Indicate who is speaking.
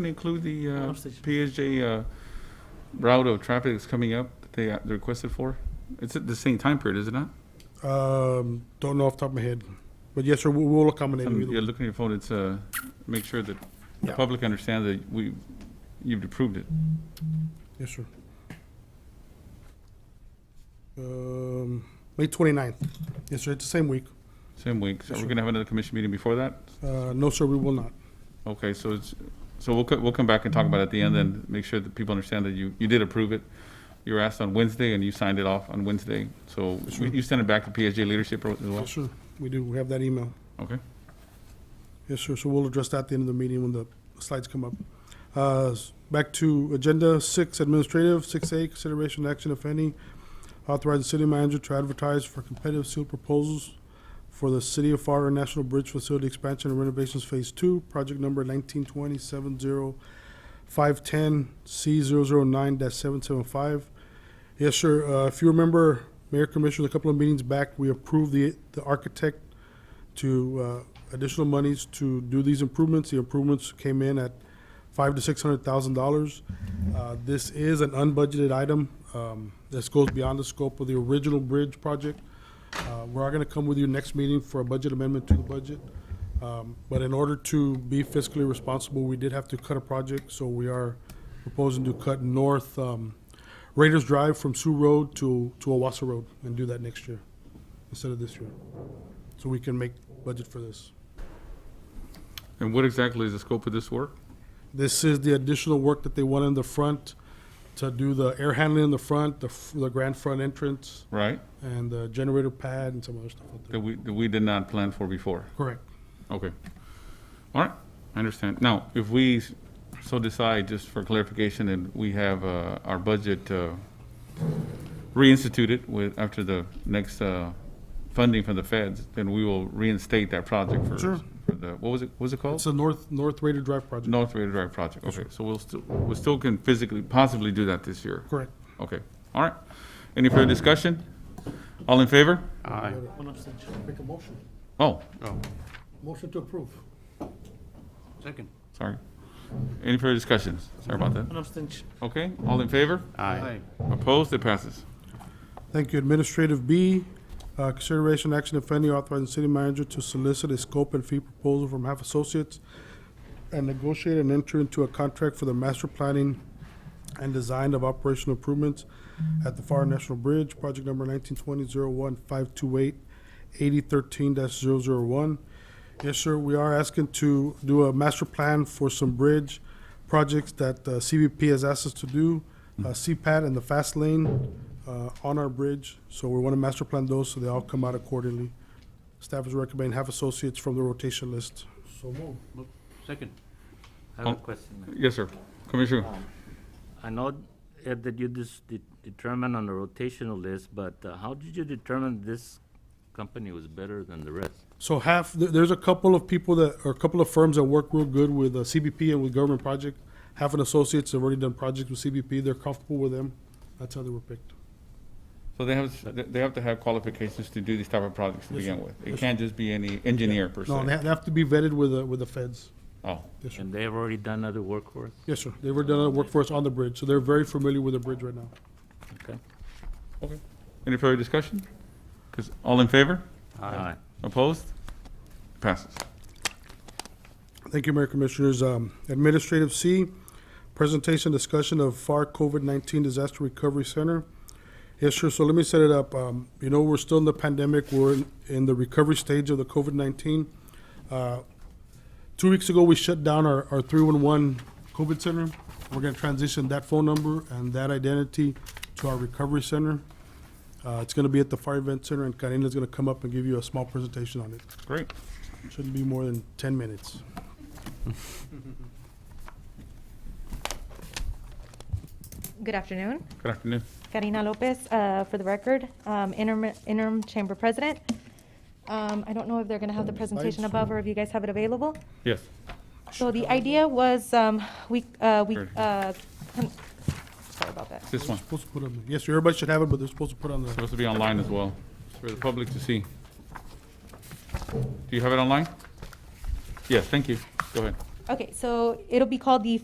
Speaker 1: Can include the uh,
Speaker 2: Pump station.
Speaker 1: PSJ uh, route of traffic that's coming up that they uh, they requested for? It's at the same time period, is it not?
Speaker 3: Um, don't know off the top of my head, but yes, sir, we will accommodate.
Speaker 1: Um,
Speaker 3: them either
Speaker 1: Yeah,
Speaker 3: way.
Speaker 1: look at your phone, it's, uh, make sure that the
Speaker 3: Yeah.
Speaker 1: public understands that we, you've approved it.
Speaker 3: Yes, sir. Um, May 29th. Yes, sir, it's the same week.
Speaker 1: Same week, so
Speaker 3: Yes,
Speaker 1: we're
Speaker 3: sir.
Speaker 1: gonna have another commission meeting before that?
Speaker 3: Uh, no, sir, we will not.
Speaker 1: Okay, so it's, so we'll, co- we'll come back and talk about it at the end and make sure that people understand that you, you did approve it. You were asked on Wednesday and you signed it off on Wednesday, so
Speaker 3: Yes,
Speaker 1: we-
Speaker 3: sir.
Speaker 1: you sent it back to PSJ leadership as well,
Speaker 3: Yes, sir, we do, we have that email.
Speaker 1: okay?
Speaker 3: Yes, sir, so we'll address that at the end of the meeting when the slides come up. Uh, s- Back to Agenda Six, Administrative, Six A, Consideration Action, if any, authorize the city manager to advertise for competitive sealed proposals for the City of FAR National Bridge Facility Expansion and Renovations Phase Two, project number nineteen twenty seven zero five ten C 9 seven seven five. Yes, sir, uh, if you remember, Mayor Commissioner, a couple of meetings back, we approved the, the architect to uh, additional monies to do these improvements. The improvements came in at five to six hundred thousand dollars. Uh, This is an unbudgeted item. um, This goes beyond the scope of the original bridge project. Uh, We are going to come with you next meeting for a budget amendment to the budget. Um, But in order to be fiscally responsible, we did have to cut a project, so we are proposing to cut north um, Raiders Drive from Sioux Road to, to Owasso Road and do that next year instead of this year so we can make budget for this.
Speaker 1: And what exactly is the scope of this work?
Speaker 3: This is the additional work that they want in the front to do the air handling in the front, the, f- the grand front entrance,
Speaker 1: Right,
Speaker 3: and the generator pad and some other stuff out
Speaker 1: that
Speaker 3: there.
Speaker 1: we, that we did not plan for before?
Speaker 3: Correct.
Speaker 1: Okay. All right, I understand. Now, if we s- so decide, just for clarification, and we have uh, our budget uh, reinstituted with, after the next uh, funding from the feds, then we will reinstate that project for
Speaker 3: Sure.
Speaker 1: for the, what was it, what was it
Speaker 3: It's
Speaker 1: called?
Speaker 3: a north, north Raider Drive project.
Speaker 1: North Raider Drive project, okay. So we'll still, we still can physically, possibly do that this year.
Speaker 3: Correct.
Speaker 1: Okay, all right. Any further discussion? All in favor?
Speaker 4: Aye.
Speaker 2: One abstention.
Speaker 5: Make a motion.
Speaker 1: Oh,
Speaker 5: Motion to approve.
Speaker 4: Second.
Speaker 1: sorry. Any further discussions? Sorry about that.
Speaker 2: One abstention.
Speaker 1: Okay, all in favor?
Speaker 4: Aye.
Speaker 1: Opposed, it passes.
Speaker 3: Thank you. Administrative B, uh, consideration action if any authorizing city manager to solicit a scope and fee proposal from half associates and negotiate and enter into a contract for the master planning and design of operational improvements at the Far National Bridge, project number nineteen twenty zero one five two eight eighty thirteen dash zero zero one. Yes, sir, we are asking to do a master plan for some bridge projects that uh, CBP has asked us to do, uh, CPAT and the fast lane uh, on our bridge. So we want to master plan those so they all come out accordingly. Staff is recommending half associates from the rotation list.
Speaker 5: So move.
Speaker 4: Second.
Speaker 6: I have
Speaker 1: Oh.
Speaker 6: a question. ma'am.
Speaker 1: Yes, sir. Commissioner,
Speaker 6: I know uh, that you just de- determined on the rotational list, but uh, how did you determine this company was better than the rest?
Speaker 3: So half, there- there's a couple of people that, or a couple of firms that work real good with uh, CBP and with government project. Half an associates have already done projects with CBP, they're comfortable with them. That's how they were picked.
Speaker 1: so they have, they- they have to have qualifications to do these type of projects to
Speaker 3: Yes, sir.
Speaker 1: begin with. It
Speaker 3: Yes,
Speaker 1: can't just be any engineer per
Speaker 3: No, they
Speaker 1: se.
Speaker 3: ha- they have to be vetted with, the- with the feds.
Speaker 1: Oh,
Speaker 3: Yes, sir.
Speaker 6: And they have already done other work for us?
Speaker 3: Yes, sir. They were done work for us on the bridge, so they're very familiar with the bridge right now.
Speaker 6: Okay.
Speaker 1: okay. Any further discussion? Because all in favor?
Speaker 6: Aye.
Speaker 1: Opposed? Passes.
Speaker 3: Thank you, Mayor Commissioners. Um, Administrative C, presentation discussion of FAR COVID-19 Disaster Recovery Center. Yes, sure, so let me set it up. Um, You know, we're still in the pandemic, we're in- in the recovery stage of the COVID-19. Uh, Two weeks ago, we shut down our our 311 COVID center. We're going to transition that phone number and that identity to our recovery center. Uh, It's going to be at the Fire Event Center, and Karina's going to come up and give you a small presentation on it.
Speaker 1: Great.
Speaker 3: Shouldn't be more than 10 minutes.
Speaker 7: Good afternoon.
Speaker 1: Good afternoon.
Speaker 7: Karina Lopez, uh, for the record, um, interim interim chamber president. Um, I don't know if they're going to have the presentation
Speaker 3: Slides.
Speaker 7: above or if you guys have it available.
Speaker 1: Yes.
Speaker 7: So the idea was, um, we, uh, we,
Speaker 1: Sure.
Speaker 7: uh, con- sorry about that.
Speaker 1: This one.
Speaker 3: Supposed to put on, the- yes, sir, everybody should have it, but they're supposed to put on the,
Speaker 1: Supposed to be online as well, for the public to see. Do you have it online? Yes, thank you. Go ahead.
Speaker 7: Okay, so it'll be called the